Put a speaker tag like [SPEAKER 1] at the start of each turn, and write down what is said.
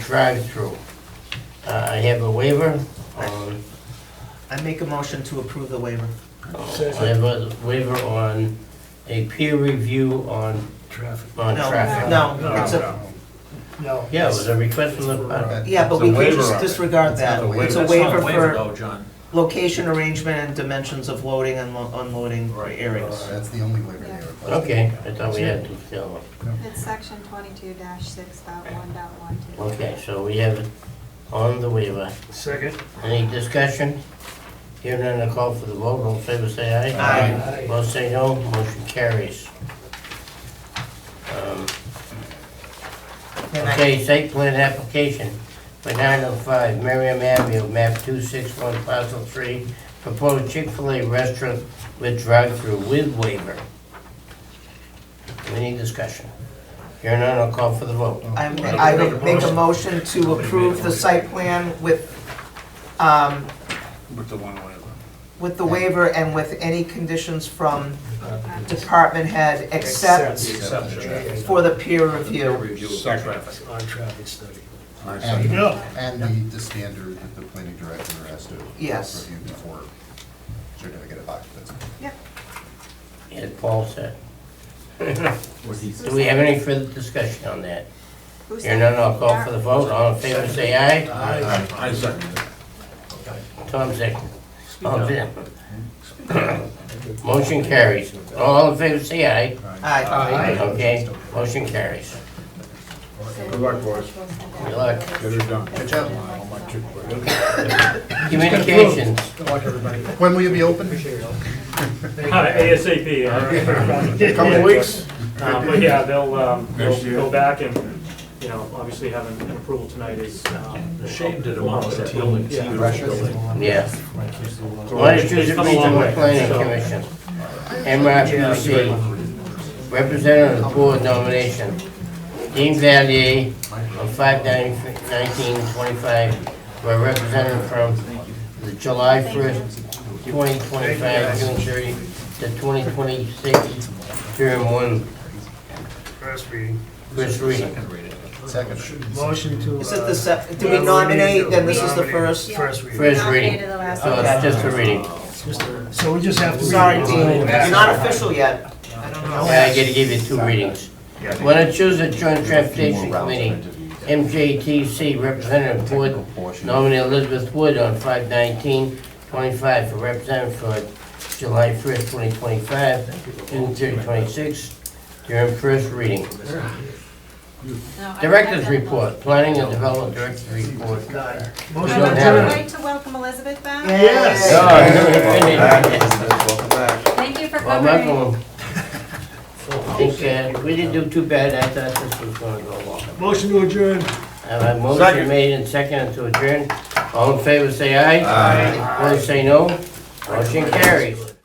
[SPEAKER 1] drive-through. Uh, I have a waiver, on-
[SPEAKER 2] I make a motion to approve the waiver.
[SPEAKER 1] I have a waiver on a peer review on,
[SPEAKER 3] Traffic.
[SPEAKER 1] on
[SPEAKER 2] No,
[SPEAKER 1] traffic.
[SPEAKER 2] No,
[SPEAKER 3] No,
[SPEAKER 2] it's a,
[SPEAKER 3] No.
[SPEAKER 1] Yeah, it was a request from the,
[SPEAKER 2] yeah, but
[SPEAKER 4] It's a
[SPEAKER 2] we can
[SPEAKER 4] waiver
[SPEAKER 2] just
[SPEAKER 4] of it.
[SPEAKER 2] disregard that. It's a
[SPEAKER 4] That's not
[SPEAKER 2] waiver for
[SPEAKER 4] though, John.
[SPEAKER 2] location arrangement and dimensions of loading and lo- unloading
[SPEAKER 4] Right.
[SPEAKER 2] areas.
[SPEAKER 5] That's the only waiver they
[SPEAKER 6] Yeah.
[SPEAKER 5] requested.
[SPEAKER 1] okay, I thought we had to tell them.
[SPEAKER 6] It's section twenty-two dash six dot one dot one two.
[SPEAKER 1] Okay, so we have it on the waiver.
[SPEAKER 3] Second.
[SPEAKER 1] Any discussion? Here none, I call for the vote, all in favor say aye.
[SPEAKER 3] Aye. Aye.
[SPEAKER 1] Both say no, motion carries. Um,
[SPEAKER 2] And I-
[SPEAKER 1] Okay, site plan application for nine oh five Merriam Avenue, map two six one parcel three, proposed Chick-fil-A restaurant with drive-through with waiver. Any discussion? Here none, I'll call for the vote.
[SPEAKER 2] I, I would make a motion to approve the site plan with, um,
[SPEAKER 4] With the one waiver.
[SPEAKER 2] with the waiver and with any conditions from department head except for the peer review.
[SPEAKER 4] Review of traffic.
[SPEAKER 3] On traffic study.
[SPEAKER 5] And,
[SPEAKER 3] Yeah.
[SPEAKER 5] and the, the standard that the planning director has to
[SPEAKER 2] Yes.
[SPEAKER 5] review before certificate of occupancy.
[SPEAKER 1] As Paul said.
[SPEAKER 4] What he
[SPEAKER 1] Do we have any further discussion on that?
[SPEAKER 6] Who
[SPEAKER 1] Here
[SPEAKER 6] said-
[SPEAKER 1] none, I'll call for the vote, all in favor say aye.
[SPEAKER 3] Aye.
[SPEAKER 4] I second it.
[SPEAKER 1] Tom second. All in favor. Motion carries. All in favor say aye.
[SPEAKER 2] Aye.
[SPEAKER 1] Okay, motion carries.
[SPEAKER 4] Good luck, boys.
[SPEAKER 1] Good luck.
[SPEAKER 4] Get it done.
[SPEAKER 5] Good job.
[SPEAKER 4] Oh, my chick, boy.
[SPEAKER 1] Communications.
[SPEAKER 3] Good luck, everybody.
[SPEAKER 5] When will you be open?
[SPEAKER 3] Appreciate it all.
[SPEAKER 7] Hi, ASAP. uh,
[SPEAKER 5] Couple
[SPEAKER 7] yeah,
[SPEAKER 5] weeks.
[SPEAKER 7] uh, But yeah, they'll, um, they'll
[SPEAKER 4] Next year.
[SPEAKER 7] go back and, you know, obviously having an approval tonight is. um,
[SPEAKER 4] Shane did a mock of building. It's a
[SPEAKER 7] Yeah.
[SPEAKER 4] beautiful building.
[SPEAKER 1] Yeah. Why don't you
[SPEAKER 7] It's
[SPEAKER 1] choose to
[SPEAKER 7] come a
[SPEAKER 1] be
[SPEAKER 7] long
[SPEAKER 1] the
[SPEAKER 7] way,
[SPEAKER 1] planning
[SPEAKER 7] so-
[SPEAKER 1] commission? MRPC, representative of the board nomination. Dean Valier of 51925, for representative from the July 1st, 2025, June 30 to 2026, term one,
[SPEAKER 3] First reading.
[SPEAKER 1] Chris Reed.
[SPEAKER 5] Second.
[SPEAKER 3] Motion to.
[SPEAKER 2] Is it the
[SPEAKER 3] second?
[SPEAKER 2] se, do we nominate, then this is the first?
[SPEAKER 3] First reading.
[SPEAKER 1] First reading.
[SPEAKER 6] Nominated the last
[SPEAKER 1] So
[SPEAKER 2] Okay.
[SPEAKER 1] it's just a reading.
[SPEAKER 3] Just a- So we just have to.
[SPEAKER 2] Sorry,
[SPEAKER 3] read it.
[SPEAKER 2] Dean, it's not official yet. I don't know.
[SPEAKER 1] Yeah, I gotta give you two readings. When I choose a joint transportation committee, MJTC Representative Wood, nominee Elizabeth Wood on 5/19/25 for representative for July 1st, 2025, June 30, 26, during first reading.
[SPEAKER 6] No, I-
[SPEAKER 1] Director's
[SPEAKER 6] I-
[SPEAKER 1] report, planning and development director's report.
[SPEAKER 3] Motion
[SPEAKER 1] We
[SPEAKER 3] to
[SPEAKER 1] don't have
[SPEAKER 6] I'd
[SPEAKER 3] adjourn.
[SPEAKER 1] it.
[SPEAKER 6] like to welcome Elizabeth back.
[SPEAKER 2] Yes.
[SPEAKER 1] No, I haven't finished.
[SPEAKER 6] Thank you for
[SPEAKER 1] Well,
[SPEAKER 6] covering.
[SPEAKER 1] Michael, I think, uh, we didn't do too bad, I thought this was gonna go long.
[SPEAKER 3] Motion to adjourn.
[SPEAKER 1] Uh, motion made and seconded to adjourn. All in favor, say aye. Aye. Opposed, say no. Motion carries.